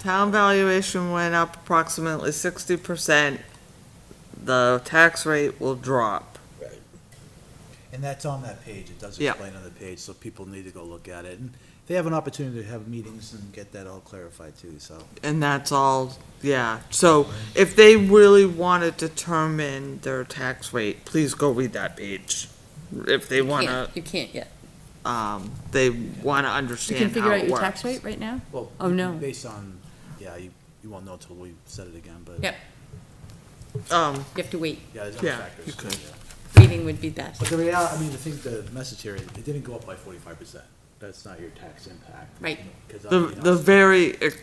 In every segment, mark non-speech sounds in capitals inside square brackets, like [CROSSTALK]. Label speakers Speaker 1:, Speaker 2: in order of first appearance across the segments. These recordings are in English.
Speaker 1: Town valuation went up approximately sixty percent. The tax rate will drop.
Speaker 2: And that's on that page, it does
Speaker 1: Yeah.
Speaker 2: explain on the page, so people need to go look at it. And they have an opportunity to have meetings and get that all clarified too, so.
Speaker 1: And that's all, yeah. So if they really want to determine their tax rate, please go read that page. If they want to,
Speaker 3: Can't, you can't yet.
Speaker 1: um, they want to
Speaker 3: You can
Speaker 1: understand
Speaker 3: figure
Speaker 1: how
Speaker 3: out
Speaker 1: it
Speaker 3: your tax
Speaker 1: works.
Speaker 3: rate right now?
Speaker 2: Well,
Speaker 3: Oh, no.
Speaker 2: Based on, yeah, you, you won't know until we said it again, but.
Speaker 3: Yep.
Speaker 1: Um,
Speaker 3: You have to wait.
Speaker 2: Yeah, there's other
Speaker 1: Yeah,
Speaker 2: factors.
Speaker 1: you could.
Speaker 2: yeah.
Speaker 3: Waiting would be that.
Speaker 2: But the reality, I mean, I think the message here is, it didn't go up by forty-five percent. That's not your tax impact.
Speaker 3: Right.
Speaker 2: 'Cause I-
Speaker 1: The,
Speaker 2: you know,
Speaker 1: the very ex-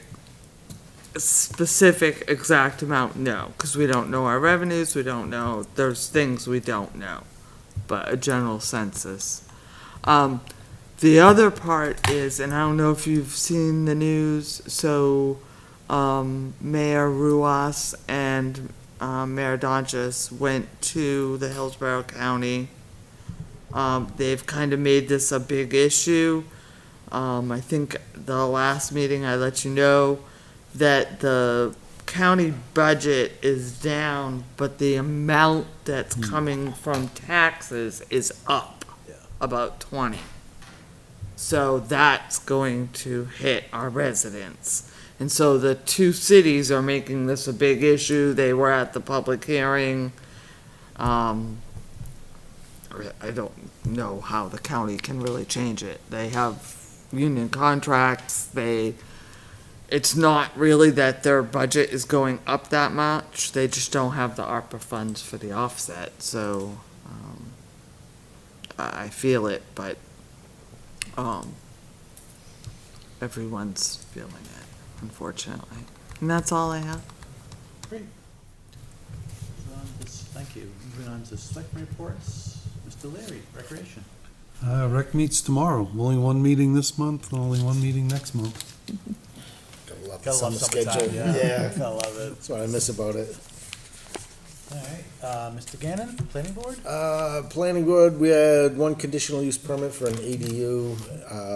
Speaker 1: specific exact amount, no, because we don't know our revenues, we don't know, there's things we don't know, but a general census. Um, the other part is, and I don't know if you've seen the news, so, um, Mayor Ruas and, um, Mayor Donches went to the Hillsborough County. Um, they've kind of made this a big issue. Um, I think the last meeting I let you know that the county budget is down, but the amount that's coming from taxes is up
Speaker 2: Yeah.
Speaker 1: about twenty. So that's going to hit our residents. And so the two cities are making this a big issue. They were at the public hearing. Um, I don't know how the county can really change it. They have union contracts, they, it's not really that their budget is going up that much, they just don't have the ARPA funds for the offset, so, um, I, I feel it, but, um, everyone's feeling it, unfortunately. And that's all I have.
Speaker 2: Great. Moving on to s- Thank you. Moving on to selectmen reports, Mr. Leary, Recreation.
Speaker 4: Uh, rec meets tomorrow. Only one meeting this month, and only one meeting next month.
Speaker 5: Gotta love
Speaker 2: Gotta
Speaker 5: the
Speaker 2: love
Speaker 5: summer
Speaker 2: summertime,
Speaker 5: schedule.
Speaker 2: yeah.
Speaker 5: Yeah,
Speaker 2: [LAUGHS] Gotta love it.
Speaker 5: that's what I miss about it.
Speaker 2: All right, uh, Mr. Gannon, planning board?
Speaker 5: Uh, planning board, we had one conditional use permit for an ADU.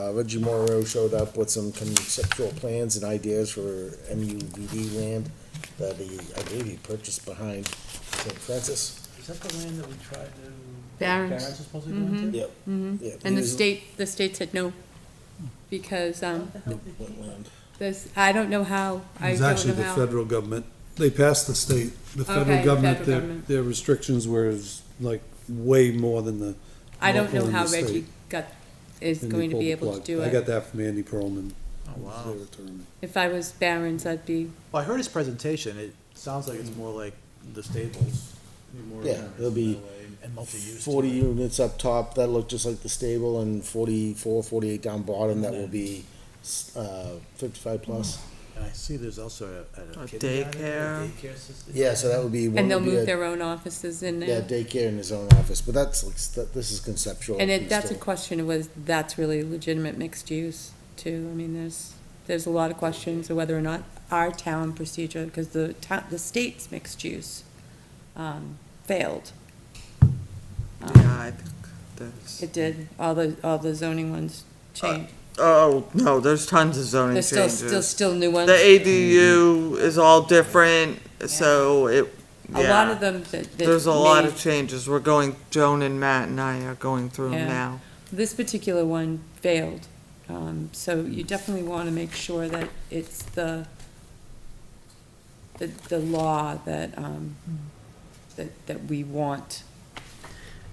Speaker 5: Uh, Reggie Morrow showed up with some conceptual plans and ideas for MUVD land that he, I believe he purchased behind St. Francis.
Speaker 2: Is that the land that we tried to?
Speaker 3: Barrens.
Speaker 2: Barrens is supposed to go into?
Speaker 5: Yep. Yeah,
Speaker 3: Mm-hmm. And the
Speaker 5: he-
Speaker 3: state, the state said no, because, um,
Speaker 5: what land?
Speaker 3: this, I don't know how, I
Speaker 4: It's
Speaker 3: don't
Speaker 4: actually
Speaker 3: know
Speaker 4: the
Speaker 3: how.
Speaker 4: federal government. They passed the state, the
Speaker 3: Okay,
Speaker 4: federal
Speaker 3: the
Speaker 4: government,
Speaker 3: federal
Speaker 4: their,
Speaker 3: government.
Speaker 4: their restrictions were s- like way more than the.
Speaker 3: I don't know
Speaker 4: local and
Speaker 3: how
Speaker 4: the state,
Speaker 3: Reggie got, is
Speaker 4: and they
Speaker 3: going to
Speaker 4: pulled
Speaker 3: be
Speaker 4: the
Speaker 3: able to
Speaker 4: plug.
Speaker 3: do
Speaker 4: I got
Speaker 3: it.
Speaker 4: that from Andy Pearlman.
Speaker 2: Oh, wow.
Speaker 4: Their attorney.
Speaker 3: If I was Barron's, I'd be,
Speaker 2: Well, I heard his presentation, it sounds like it's more like the stables. more
Speaker 5: Yeah,
Speaker 2: renters
Speaker 5: it'll be
Speaker 2: that way, And multi-use. to
Speaker 5: Forty
Speaker 2: it.
Speaker 5: units up top, that look just like the stable, and 44, 48 down bottom,
Speaker 3: Mm-hmm.
Speaker 5: that will be, s- uh, fifty-five plus.
Speaker 2: And I see there's also a, a.
Speaker 1: A
Speaker 2: kindergarten,
Speaker 1: daycare.
Speaker 2: Daycare system.
Speaker 5: Yeah, so that would be. one
Speaker 3: and they'll
Speaker 5: would be
Speaker 3: move
Speaker 5: a-
Speaker 3: their own offices in
Speaker 5: Yeah,
Speaker 3: now.
Speaker 5: daycare in his own office, but that's like, s- that- this is conceptual.
Speaker 3: And it, that's a
Speaker 5: still.
Speaker 3: question of was, that's really legitimate mixed use too. I mean, there's, there's a lot of questions of whether or not our town procedure, because the town, the state's mixed use, um, failed. Um,
Speaker 1: Yeah, I think there's,
Speaker 3: It did, all the, all the zoning ones
Speaker 1: Uh,
Speaker 3: changed.
Speaker 1: oh, no, there's tons of zoning
Speaker 3: There's
Speaker 1: changes.
Speaker 3: still, still, still new ones.
Speaker 1: The ADU is all different, so it,
Speaker 3: A lot
Speaker 1: yeah,
Speaker 3: of them that. that
Speaker 1: there's a lot
Speaker 3: made-
Speaker 1: of changes, we're going, Joan and Matt and I are going through them
Speaker 3: Yeah.
Speaker 1: now.
Speaker 3: This particular one failed, um, so you definitely wanna make sure that it's the, the, the law that, um, that, that we want.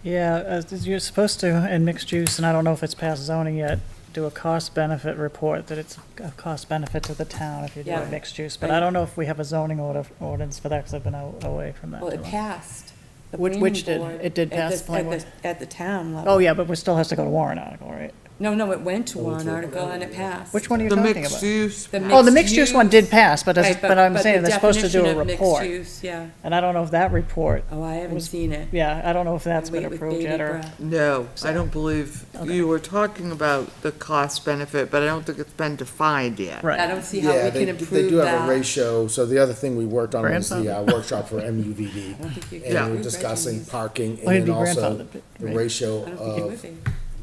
Speaker 6: Yeah, uh, you're supposed to, in mixed use, and I don't know if it's past zoning yet, do a cost benefit report, that it's a cost benefit to the town if you do
Speaker 3: Yeah.
Speaker 6: a mixed use. But I don't know if we have a zoning order, ordinance for that, because I've been a- away from that.
Speaker 3: Well, it
Speaker 6: too long.
Speaker 3: passed. the
Speaker 6: Which- which
Speaker 3: planning
Speaker 6: did?
Speaker 3: board
Speaker 6: It did
Speaker 3: at
Speaker 6: pass
Speaker 3: the-
Speaker 6: the planning
Speaker 3: At the, at the town level.
Speaker 6: Oh, yeah, but we still has to go to warrant article, right?
Speaker 3: No, no, it went to warrant article and it passed.
Speaker 6: Which one are you
Speaker 1: The
Speaker 6: talking
Speaker 1: mixed
Speaker 6: about?
Speaker 1: use,
Speaker 3: The
Speaker 6: Oh, the mixed use one did pass, but, that's-
Speaker 3: Right,
Speaker 6: but I'm
Speaker 3: but
Speaker 6: saying
Speaker 3: the
Speaker 6: they're supposed to do a
Speaker 3: definition of Mixed
Speaker 6: report.
Speaker 3: use, yeah.
Speaker 6: And I don't know if that report,
Speaker 3: Oh, I haven't
Speaker 6: Was-
Speaker 3: seen it.
Speaker 6: yeah, I don't know if that's
Speaker 3: I
Speaker 6: been
Speaker 3: wait with
Speaker 6: approved
Speaker 3: bated
Speaker 6: yet or.
Speaker 3: breath.
Speaker 1: no, I don't believe,
Speaker 6: Okay.
Speaker 1: you were talking about the cost benefit, but I don't think it's been defined yet.
Speaker 3: I
Speaker 6: Right,
Speaker 3: don't see how
Speaker 5: Yeah,
Speaker 3: we
Speaker 5: they,
Speaker 3: can
Speaker 5: they
Speaker 3: improve
Speaker 5: do have a
Speaker 3: that.
Speaker 5: ratio, so the other thing we worked on was the uh,
Speaker 6: Grandfather.
Speaker 5: workshop
Speaker 6: [LAUGHS]
Speaker 5: for MUVD.
Speaker 3: I don't think you can
Speaker 5: And
Speaker 3: improve
Speaker 5: we're discussing
Speaker 3: regimens.
Speaker 5: parking
Speaker 6: Well,
Speaker 5: and
Speaker 6: it'd
Speaker 5: then
Speaker 6: be
Speaker 5: also
Speaker 6: grandfathered, but-
Speaker 5: the
Speaker 6: right.
Speaker 5: ratio
Speaker 3: I don't think it would
Speaker 5: of
Speaker 3: be.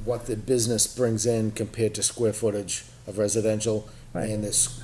Speaker 5: what the business brings in compared to square footage of residential.
Speaker 6: Right.
Speaker 5: And this,